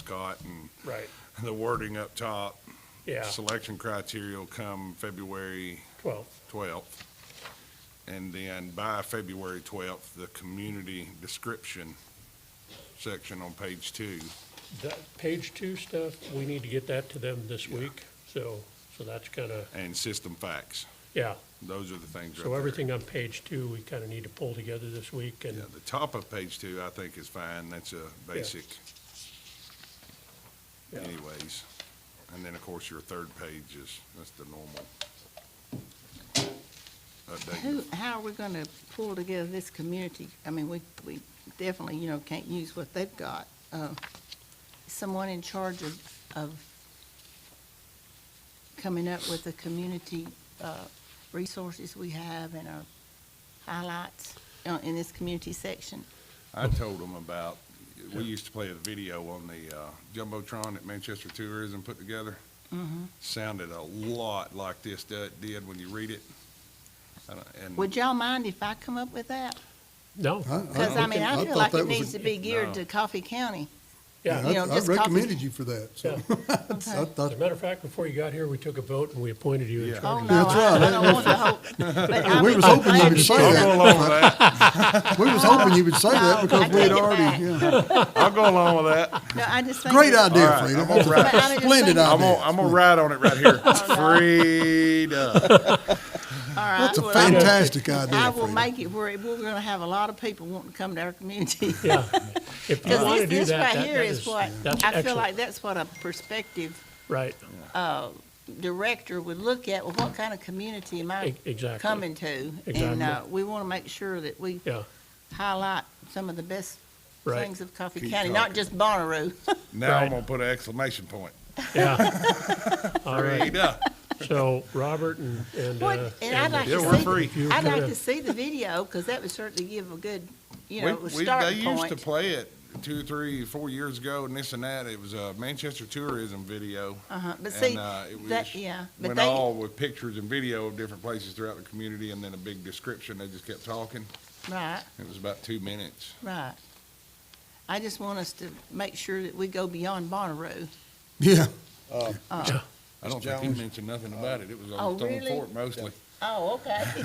Scott and Right, the wording up top. yeah, Selection criteria will come February twelve, twelfth. And then by February twelfth, the community description section on page two. that, page two stuff, we need to get that to them this week, so, so that's kinda, and system facts. yeah. Those are the things right So there. everything on page two, we kinda need to pull together this week and, Yeah, the top of page two, I think is fine. That's a basic Yeah. anyways. And then, of course, your third page is, that's the normal. Who, update. how are we gonna pull together this community? I mean, we, we definitely, you know, can't use what they've got. Uh, Someone in charge of, of coming up with the community, uh, resources we have and our highlights uh, in this community section. Mm-hmm. I told them about, we used to play a video on the uh, Jumbotron that Manchester Tourism put together. Mm-hmm. Sounded a lot like this do- did when you read it. I don't- And Would y'all mind if I come up with that? no, Uh, Cause I mean, I feel thought like that it was a- needs to be No. geared to Coffee County. Yeah, yeah, you know, I- I just copy- recommended you for that, so. yeah. I As a thought, matter of fact, before you got here, we took a vote and we appointed you in Yeah. Oh, charge. no, I I don't want the whole, but I we mean, was hoping I you would say I'll understand. go that. along with that. We was hoping you would say No, that I because we take had it already, yeah. I'll go along with that. No, I just think. Great that- idea, right, I'm Freda. all right. But I mean, just Splendid think- uh, idea. I'm gonna, I'm gonna ride on it right here. Freedom. All right, That's a well, I- fantastic I idea, will Freda. make it where we're going to have a lot of people wanting to come to our community. Yeah. If you Because wanna this, do this that, right that here that is is, what, that's I feel excellent, like that's what a prospective uh, right, director would look at, well, what kind of community am I E- exactly. coming to? And Exactly. uh, we want to make sure that we yeah, highlight some of the best Right. things of Coffee Keep County, not talking. just Bonnaroo. Now Right. I'm gonna put an exclamation point. yeah. All right, Freedom. so Robert and, and, What- uh, And I'd like Yeah, to we're see, free. the- I'd like to see the video, because that would certainly give a good, you know, We- a we- starting They used to point. play it two, three, four years ago and this and that. It was a Manchester tourism video. Uh-huh, but And, see, uh, it that, was- yeah, but Went they. all with pictures and video of different places throughout the community and then a big description. They just kept talking. Right, It was about two minutes. right. I just want us to make sure that we go beyond Bonnaroo. Yeah, I don't think he mentioned nothing about it. It was Oh, on Stone really? Fort mostly. Oh, okay.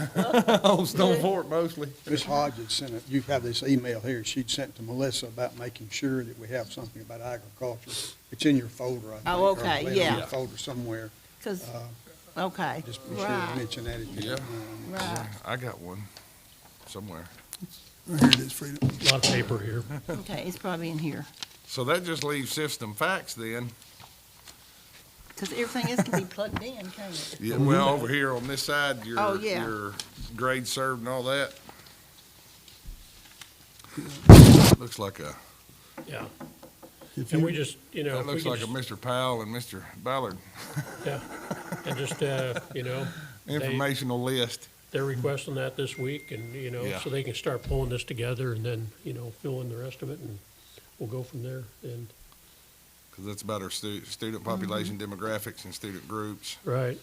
On Stone Fort mostly. Ms. Hodges sent it, you have this email here, she'd sent to Melissa about making sure that we have something about agriculture. It's in your folder, I think. Oh, or okay, later in yeah. your Folder somewhere, Because, Uh, okay, just be sure to right, mention that at the Yeah. end. right, I got one somewhere. right here it is, Freda. a lot of paper here. okay, it's probably in here. So that just leaves system facts then. Because everything else can be plugged in, can't it? Yeah, well, over here on this side, your, Mm-hmm. Oh, yeah. your grade served and all that. Looks like a, Yeah, If and you- we just, you know, that if we looks like a could Mr. Powell and Mr. Ballard just- yeah, and just, uh, you know, they, informational list. they're requesting that this week and, you know, Yeah. so they can start pulling this together and then, you know, fill in the rest of it and we'll go from there and, Cause that's about our stu- student population Mm-hmm. demographics and student groups right.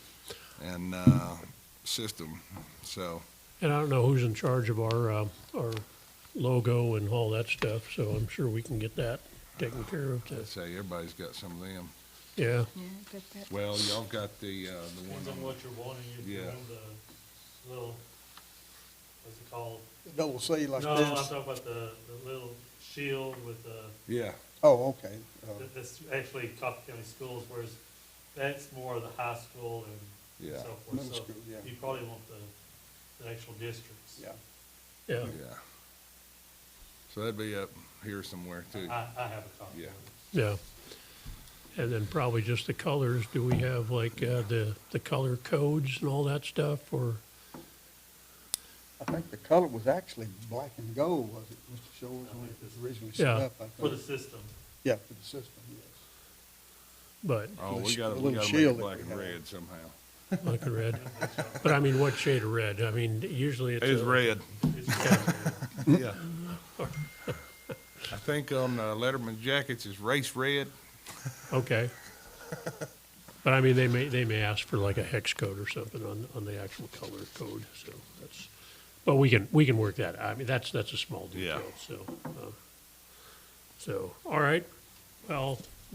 and, uh, system. So, And I don't know who's in charge of our, uh, our logo and all that stuff, so I'm sure we can get that taken care of. I'd to- say everybody's got some of them. Yeah, Yeah, but that- Well, y'all got the, uh, the one, Depends on what you're wanting, if you Yeah. want the little, what's it called? Double C like No, I'm this? talking about the, the little shield with the, yeah, Oh, okay. Uh, that- that's actually Coffee County Schools, whereas that's more of the high school and Yeah. so forth. Middle So school, yeah. you probably want the, the actual districts. Yeah, yeah, yeah. So that'd be up here somewhere too. I, I have a copy. of Hmm. Yeah. it. yeah. And then probably just the colors. Do we have like, uh, the, the color codes and all that stuff or? I think the color was actually black and gold, was it, Mr. Shores, when it was originally set Yeah. up, I For the think? system, Yeah, for the system, yes. But Oh, the we sh- gotta, the we little gotta make shield it that black we and have. red somehow. like a red. But I mean, what shade of red? I mean, usually it's. It's a- red. it's, Yeah. I think on uh, Letterman jackets is race red. Okay. But I mean, they may, they may ask for like a hex code or something on, on the actual color code, so that's, but we can, we can work that, out. I mean, that's, that's a small Yeah. detail, so. uh, So, all right, well,